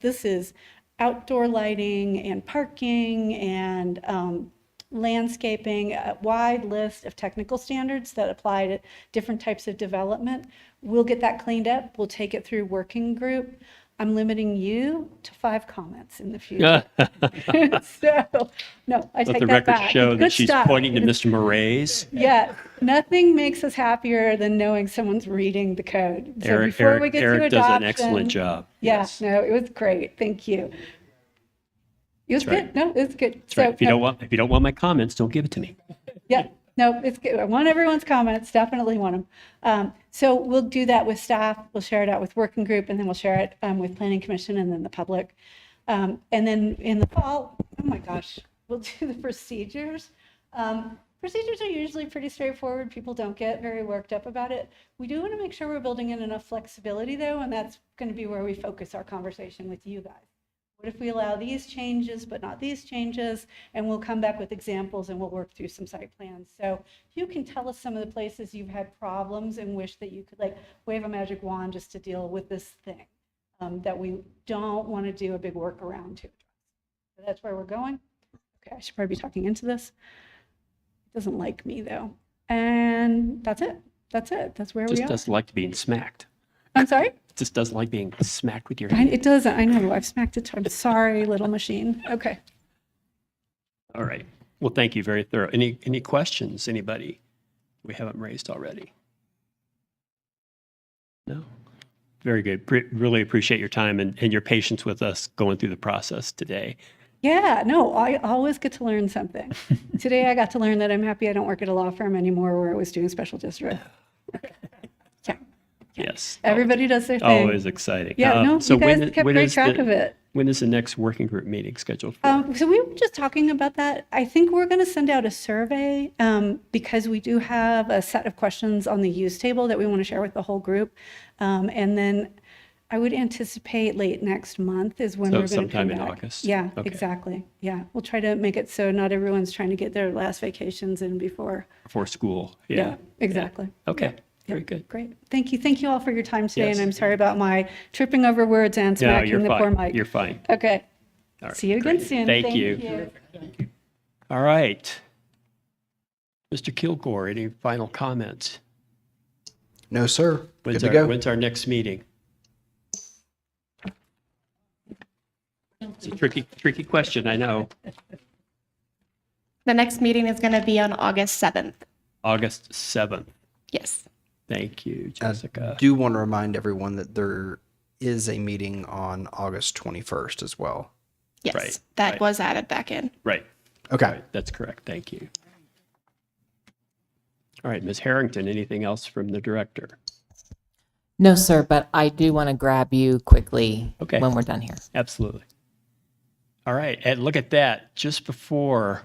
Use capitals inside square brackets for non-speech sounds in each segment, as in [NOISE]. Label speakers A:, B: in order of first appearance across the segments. A: this is outdoor lighting and parking and um, landscaping, a wide list of technical standards that apply to different types of development. We'll get that cleaned up. We'll take it through working group. I'm limiting you to five comments in the
B: [LAUGHS]
A: future. [LAUGHS] So, no, I
B: Let
A: take
B: the
A: that
B: record
A: back.
B: show that
A: Good
B: she's
A: stuff.
B: pointing to Mr. Moraes.
A: [LAUGHS] Yeah, nothing makes us happier than knowing someone's reading the code. So
B: Eric,
A: before we
B: Eric,
A: get to
B: Eric does an excellent
A: adoption-
B: job.
A: Yeah, no, it was great. Thank you. It was
B: That's
A: good.
B: right.
A: No, it was good.
B: That's right. If you
A: no,
B: don't want, if you don't want my comments, don't give it to me.
A: Yeah, no, it's good. I want everyone's comments, definitely want them. Um, so we'll do that with staff, we'll share it out with working group, and then we'll share it um, with planning commission and then the public. Um, and then in the fall, oh my gosh, we'll [LAUGHS] do the procedures. Um, procedures are usually pretty straightforward. People don't get very worked up about it. We do want to make sure we're building in enough flexibility though, and that's going to be where we focus our conversation with you guys. What if we allow these changes, but not these changes? And we'll come back with examples and we'll work through some site plans. So if you can tell us some of the places you've had problems and wish that you could like wave a magic wand just to deal with this thing um, that we don't want to do a big workaround to. So that's where we're going. Okay, I should probably be talking into this. It doesn't like me though. And that's it. That's it. That's where we
B: Just
A: are.
B: doesn't like to be smacked.
A: I'm sorry?
B: Just doesn't like being smacked with your
A: I-
B: hand.
A: It doesn't. I know. I've smacked it. I'm sorry, little machine. Okay.
B: All right. Well, thank you. Very thorough. Any, any questions, anybody we haven't raised already? No? Very good. Pre- Really appreciate your time and, and your patience with us going through the process today.
A: Yeah, no, I always get to learn
B: [LAUGHS]
A: something. Today I got to learn that I'm happy I don't work at a law firm anymore where I was doing special
B: [LAUGHS]
A: district. Yeah,
B: Yes.
A: everybody does their thing.
B: Always Oh, exciting.
A: Yeah,
B: Uh,
A: no,
B: so
A: you
B: when
A: guys
B: i-
A: kept
B: when
A: great
B: is the-
A: track of it.
B: When is the next working group meeting scheduled for?
A: Um, so we were just talking about that. I think we're going to send out a survey um, because we do have a set of questions on the use table that we want to share with the whole group. Um, and then I would anticipate late next month is when
B: So
A: we're going to come
B: sometime in
A: back.
B: August?
A: Yeah,
B: Okay.
A: exactly. Yeah, we'll try to make it so not everyone's trying to get their last vacations in before.
B: for school. Yeah.
A: exactly.
B: Okay. Very good.
A: Great. Thank you. Thank you all for your time today.
B: Yes.
A: And I'm sorry about my tripping over words and
B: No,
A: smacking
B: you're
A: the poor
B: fine.
A: mic.
B: You're fine.
A: okay.
B: All right,
A: See you again
B: great.
A: soon.
B: Thank you. All right. Mr. Kilgore, any final comments?
C: No, sir. Good
B: When's
C: to
B: our,
C: go.
B: when's our next meeting? It's a tricky, tricky question, I know.
D: The next meeting is going to be on August 7th.
B: August 7th.
D: Yes.
B: Thank you,
C: I
B: Jessica.
C: do want to remind everyone that there is a meeting on August 21st as well.
D: Yes.
B: Right,
D: That
B: right.
D: was added back in.
B: Right,
C: Okay.
B: right, that's correct. Thank you. All right, Ms. Harrington, anything else from the director?
E: No, sir, but I do want to grab you quickly
B: Okay.
E: when we're done here.
B: Absolutely. All right, and look at that, just before,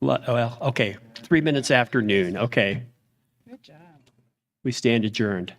B: lu- well, okay, three minutes after noon, okay. Good job. We stand adjourned.